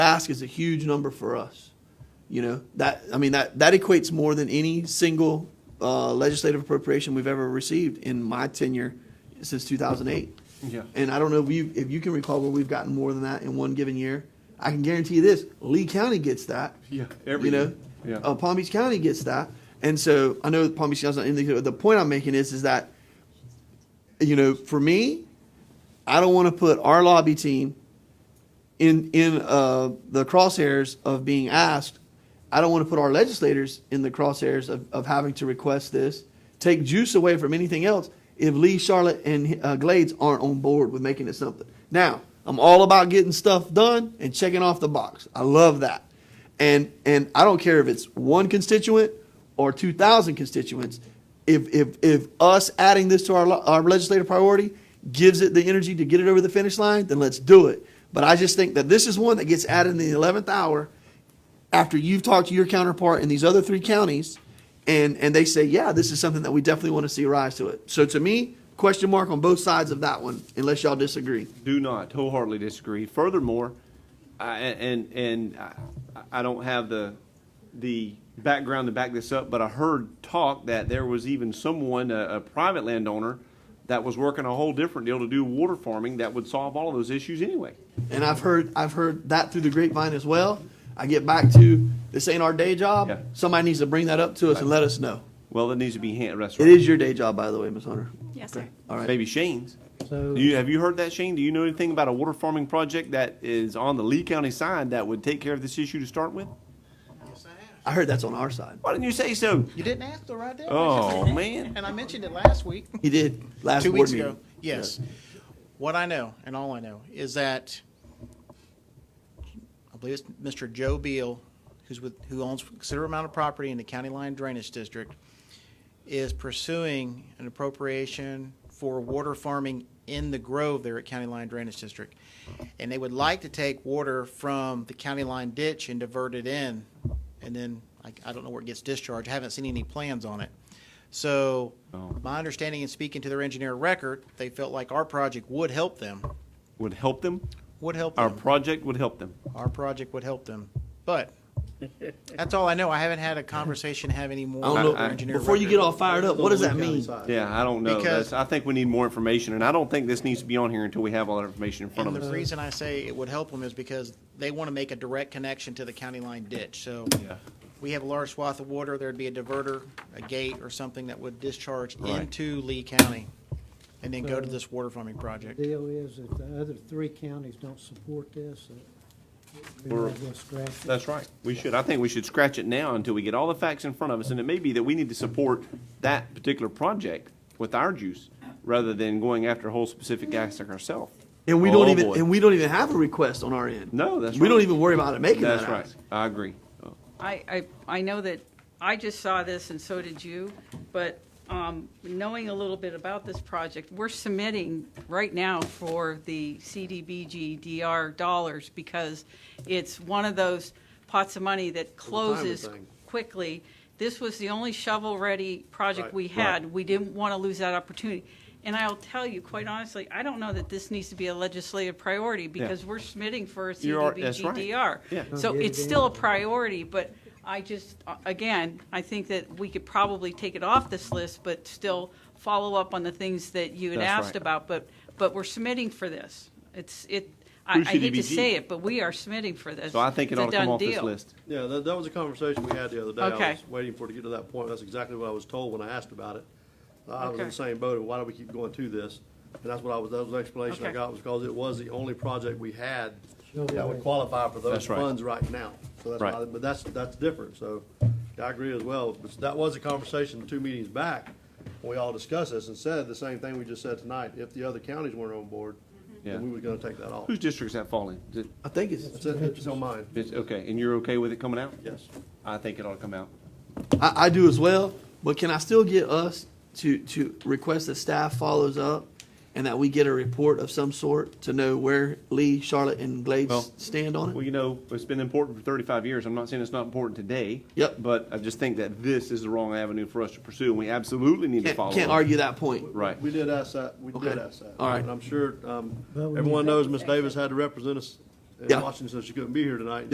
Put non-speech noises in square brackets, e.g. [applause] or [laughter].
ask is a huge number for us. You know, that, I mean, that, that equates more than any single uh, legislative appropriation we've ever received in my tenure since 2008. Yeah. And I don't know if you, if you can recall where we've gotten more than that in one given year. I can guarantee you this, Lee County gets that. Yeah, every You know? year. Yeah. Uh, Palm Beach County gets that. And so I know that Palm Beach County's not in the, the point I'm making is, is that, you know, for me, I don't want to put our lobby team in in uh, the crosshairs of being asked. I don't want to put our legislators in the crosshairs of, of having to request this. Take juice away from anything else if Lee, Charlotte, and uh, Glades aren't on board with making it something. Now, I'm all about getting stuff done and checking off the box. I love that. And and I don't care if it's one constituent or 2,000 constituents. If, if, if us adding this to our, lo- our legislative priority gives it the energy to get it over the finish line, then let's do it. But I just think that this is one that gets added in the 11th hour after you've talked to your counterpart in these other three counties and, and they say, yeah, this is something that we definitely want to see rise to it. So to me, question mark on both sides of that one, unless y'all disagree. Do not wholeheartedly disagree. Furthermore, I, and and I, I don't have the the background to back this up, but I heard talk that there was even someone, a, a private landowner, that was working a whole different deal to do water farming that would solve all of those issues anyway. and I've heard I've heard that through the grapevine as well. I get back to this ain't our day job. Yeah. Somebody needs to bring that up to us and let us know. Well, that needs to be hand It restaurant. is your day job, by the way, Ms. Hunter. Yes, Okay. sir. All right. Maybe Shane's. So, Do you, have you heard that, Shane? Do you know anything about a water farming project that is on the Lee County side that would take care of this issue to start with? I heard that's on our side. Why didn't you [laughs] say so? You didn't ask the right day. Oh, man. And I mentioned it [laughs] last week, He did last two board weeks meeting. ago. Yes. What I know, and all I know, is that I believe it's Mr. Joe Beal, who's with, who owns a considerable amount of property in the County Line Drainage District, is pursuing an appropriation for water farming in the Grove there at County Line Drainage District. And they would like to take water from the county line ditch and divert it in, and then, I, I don't know where it gets discharged, I haven't seen any plans on it. So, Oh. my understanding in speaking to their engineer record, they felt like our project would help them, Would help them? would help Our them project would help them. our project would help them. But that's all I know. I haven't had a conversation, have any more. I don't know. with our engineer before you get record. all fired up, what does that mean? Yeah, I don't know. Because- That's, I think we need more information, and I don't think this needs to be on here until we have all that information in front And of the us. reason I say it would help them is because they want to make a direct connection to the county line ditch. So Yeah. we have a large swath of water. There'd be a diverter, a gate or something that would discharge Right. into Lee County and then go to this water farming the project. deal is, if the other three counties don't support this, uh, we We're- might as well scratch it. That's right. We should. I think we should scratch it now until we get all the facts in front of us, and it may be that we need to support that particular project with our juice rather than going after a whole specific aspect ourselves. And we Oh, don't even boy. and we don't even have a request on our end. No, that's we right. don't even worry about it making That's that right. ask. I agree. Oh, I, I, I know that, I just saw this and so did you, but um, knowing a little bit about this project, we're submitting right now for the CDBG-DR dollars because it's one of those pots of money that closes thing. quickly. This was the only shovel-ready project Right. we had. We didn't want to lose that opportunity. And I'll tell you, quite honestly, I don't know that this needs to be a legislative priority because we're submitting for a You are- that's right. CDBG-DR. Yeah. So Get it it's still a in. priority, but I just, uh, again, I think that we could probably take it off this list, but still follow up on the things that you had That's asked right. about, but, but we're submitting for this. It's, it, I I Through hate to CDBG. say it, but we are submitting for this. So I think it It's a ought to come done off this deal. list. Yeah, that, that was a conversation we had the other day. Okay. I was waiting for it to get to that point. That's exactly what I was told when I asked about it. I was in Okay. the same boat, of why do we keep going to this? And that's what I was, that was the explanation I Okay. got, was because it was the only project we had Sure. that would qualify for those That's right. funds right now. So that's Right. why, but that's, that's different, so I agree as well. But that was a conversation two meetings back, when we all discussed this and said the same thing we just said tonight. If the other counties weren't on board, Yeah. then we were gonna take that off. Whose district's that fall in? Is it- I think it's That's it, it's on mine, It's, okay, and you're okay with it coming out? yes. I think it ought to come out. I, I do as well, but can I still get us to, to request that staff follows up and that we get a report of some sort to know where Lee, Charlotte, and Glades Well, stand on it? Well, you know, it's been important for 35 years. I'm not saying it's not important today. Yep. But I just think that this is the wrong avenue for us to pursue, and we absolutely need to can't, follow. can't up. argue that point. Right. We did ask that, we Okay. did ask that. All right. And I'm sure, um, Well, we everyone need- knows Ms. Davis had to represent us in Yeah. Washington, since she couldn't be here tonight,